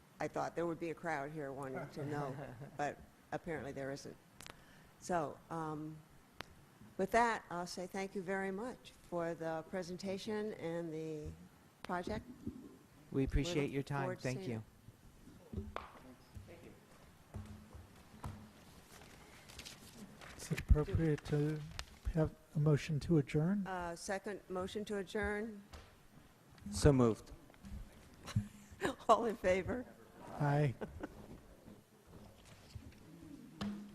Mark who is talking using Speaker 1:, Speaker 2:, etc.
Speaker 1: I thought there would be a crowd here wanting to know, but apparently there isn't. So, um, with that, I'll say thank you very much for the presentation and the project.
Speaker 2: We appreciate your time.
Speaker 1: forward to
Speaker 2: Thank
Speaker 1: seeing
Speaker 2: you.
Speaker 1: it.
Speaker 3: It's appropriate to have a motion to adjourn.
Speaker 1: Uh, Second, motion to adjourn.
Speaker 4: So moved.
Speaker 1: All in favor?
Speaker 3: Aye.